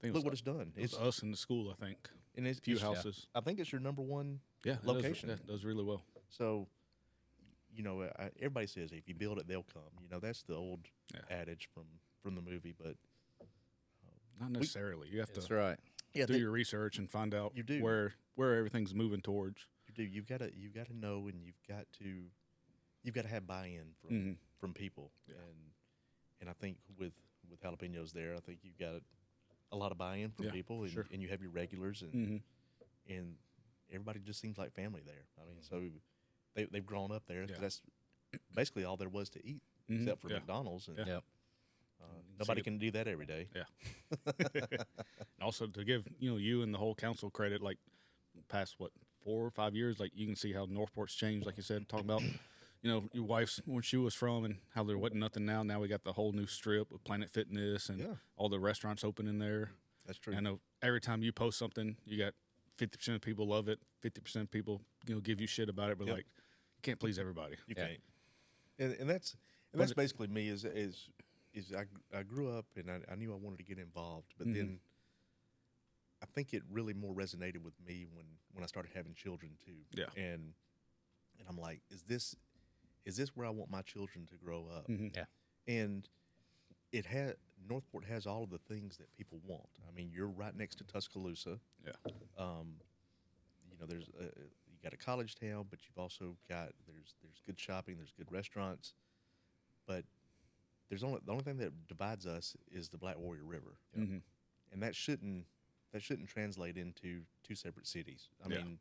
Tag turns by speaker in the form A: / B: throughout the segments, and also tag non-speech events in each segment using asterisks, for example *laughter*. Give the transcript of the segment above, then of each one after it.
A: think it
B: Look
A: was,
B: what it's done.
A: it was
B: It's
A: us in the school, I think.
B: and it's
A: Few
B: it's-
A: houses.
B: I think it's your number one.
A: Yeah, it does-
B: Location.
A: yeah, It does, really well.
B: So, you know, I, everybody says if you build it, they'll come. You know, that's the old
A: Yeah.
B: adage from from the movie. But
A: Not necessarily. You have
C: That's
A: to
C: right.
B: yeah,
A: do
B: they-
A: your research and find out
B: You do.
A: where where everything's moving towards.
B: You do. You've got to. You've got to know, and you've got to. You've got to have buy-in from
A: Mhm.
B: from people, and and I think with with jalapenos there, I think you've got a lot of buy-in from
A: Yeah,
B: people, and,
A: sure.
B: and you have your regulars, and
A: Mhm.
B: and everybody just seems like family there. I mean, so they they've grown up there 'cause
A: Mm-hmm. Yeah.
B: that's basically all there was to eat
A: Mhm,
B: except for
A: yeah.
B: McDonald's, and
A: Yeah.
C: Yep.
B: uh, nobody
A: it-
B: can do that every day.
A: Yeah. And also to give you know you and the whole council credit, like past what four or five years, like you can see how Northport's changed. Like you said, talking about you know your wife's where she was from and how there wasn't nothing now. Now we got the whole new strip with Planet Fitness and
B: Yeah.
A: all the restaurants open in there.
B: That's true.
A: I know every time you post something, you got fifty percent of people love it, fifty percent of people you know give you shit about it, but
B: Yep.
A: like you can't please everybody.
B: You
C: Yeah.
B: can't. And, and that's and that's basically me. Is is is I I grew up and I, I knew I wanted to get involved, but
C: Mm-hmm.
B: then I think it really more resonated with me when when I started having children too.
A: Yeah.
B: And and I'm like, is this is this where I want my children to grow up?
A: Mm-hmm.
C: Yeah.
B: And it had Northport has all of the things that people want. I mean, you're right next to Tuscaloosa Um,
A: Yeah.
B: you know there's a, you got a college town but you've also got there's there's good shopping there's good restaurants but there's only the only thing that divides us is the black warrior river
A: Mm-hmm.
B: and that shouldn't that shouldn't translate into two separate cities i
A: Yeah.
B: mean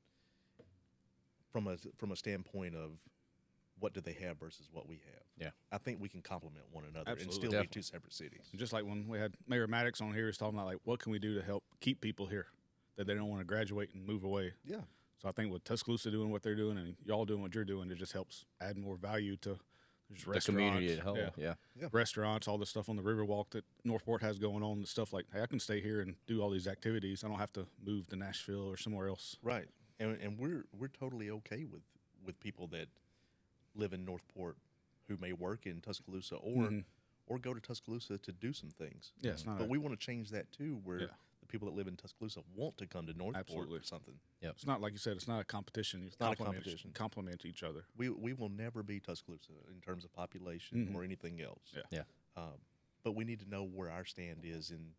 B: from a from a standpoint of what do they have versus what we have
C: Yeah.
B: i think we can complement one another and
A: Absolutely.
B: still
C: Definitely.
B: be two separate cities
A: Just like when we had Mayor Maddox on here, he's talking about like what can we do to help keep people here that they don't want to graduate and move away.
B: Yeah.
A: So I think with Tuscaloosa doing what they're doing and y'all doing what you're doing, it just helps add more value to just
C: The community
A: restaurants.
C: at whole, yeah.
B: Yeah.
A: Restaurants, all the stuff on the Riverwalk that Northport has going on, the stuff like hey, I can stay here and do all these activities. I don't have to move to Nashville or somewhere else.
B: Right, and and we're we're totally okay with with people that live in Northport who may work in Tuscaloosa
A: Mm-hmm.
B: or or go to Tuscaloosa to do some things.
A: Yeah, it's not
B: but
A: a-
B: we want to change that too, where
A: Yeah.
B: the people that live in Tuscaloosa want to come to Northport
A: Absolutely.
B: or something.
C: Yep.
A: It's not like you said, it's not a competition. It's
B: not a
A: competition.
B: competition.
A: Complement each other.
B: We we will never be Tuscaloosa in terms of population or anything else.
A: Mm-hmm.
B: Um,
A: Yeah.
C: Yeah.
B: but we need to know where our stand is in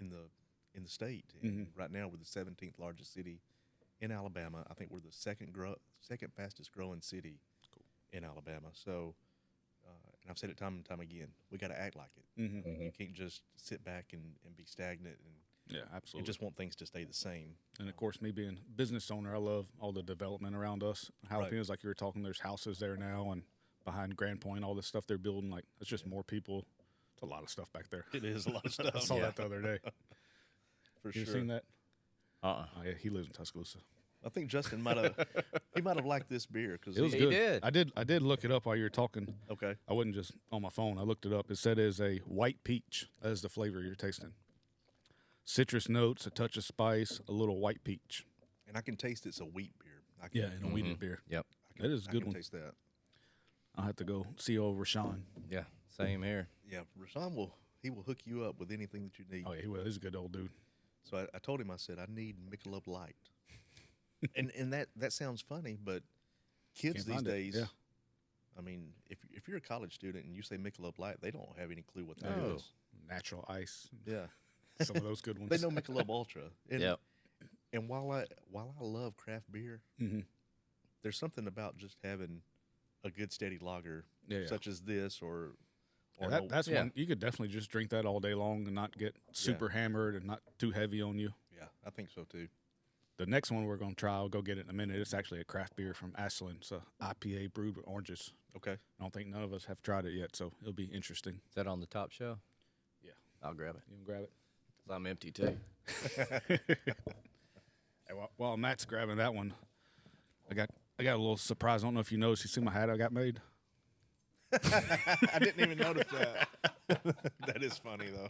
B: in the in the state. And
A: Mm-hmm.
B: right now, we're the 17th largest city in Alabama. I think we're the second grow, second fastest growing city in Alabama. So, uh, and I've said it time and time again, we got to act like it. I
C: Mm-hmm.
B: mean, You can't just sit back and, and be stagnant and,
A: Yeah,
B: and
A: absolutely.
B: just want things to stay the same.
A: And of course, me being a business owner, I love all the development around us. Jalapenos, like you were talking, there's houses there now, and behind Grand Point, all this stuff they're building. Like it's just more people. It's a lot of stuff back there.
B: It is a lot of
A: *laughs*
B: stuff.
A: I saw that the other day.
B: *laughs* for
A: You
B: sure.
A: seen that?
C: Uh-uh.
A: Oh, yeah, he lives in Tuscaloosa.
B: I think Justin might have he might have liked this beer because
A: It was
C: He
A: good.
C: did.
A: I did. I did look it up while you were talking.
B: Okay.
A: I wasn't just on my phone. I looked it up. It said it's a white peach. That is the flavor you're tasting. Citrus notes, a touch of spice, a little white peach.
B: and I can taste it's a wheat beer. I can,
A: Yeah, and a weeded beer.
C: Yep.
B: I can,
A: That is a
B: I
A: good
B: can
A: one.
B: Taste that.
A: I'll have to go see over Rashawn.
C: Yeah. Same here.
B: Yeah, Rashawn will he will hook you up with anything that you need.
A: Oh, yeah, he was. He's a good old dude.
B: So I, I told him I said I need
A: *laughs*
B: Michelob Light, and and that that sounds funny, but kids
A: Can't
B: these
A: find it,
B: days,
A: yeah.
B: I mean, if if you're a college student and you say Michelob Light, they don't have any clue what that is.
C: No.
A: Natural *laughs* ice.
B: Yeah,
A: Some of those good ones.
B: they know Michelob Ultra. And,
C: Yep.
B: And while I while I love craft beer,
A: Mm-hmm.
B: there's something about just having a good steady lager,
A: Yeah, yeah.
B: such as this, or or
A: Yeah,
B: an
A: that,
B: old-
A: that's
C: Yeah.
A: one you could definitely just drink that all day long and not get super hammered and not too heavy on you.
B: yeah, I think so too.
A: The next one we're gonna try, I'll go get it in a minute. It's actually a craft beer from Ashland. It's a IPA brewed with oranges.
B: Okay. *laughs*
A: I don't think none of us have tried it yet, so it'll be interesting.
C: Is that on the top shelf?
A: Yeah,
C: I'll grab it.
A: you can grab it.
C: 'Cause I'm empty too.
A: Hey, while, while Matt's grabbing that one, I got I got a little surprise. I don't know if you noticed. You see my hat I got made.
B: I didn't even notice
A: *laughs*
B: that. that is funny though.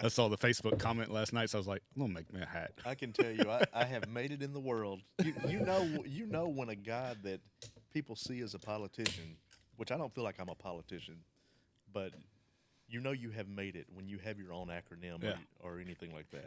A: I saw the Facebook comment last night, so I was like, I'm gonna make me a hat.
B: I can tell you, I, I have made it in the world. You, you know, you know when a guy that people see as a politician, which I don't feel like I'm a politician, but you know you have made it when you have your own acronym
A: Yeah.
B: or, or anything like that.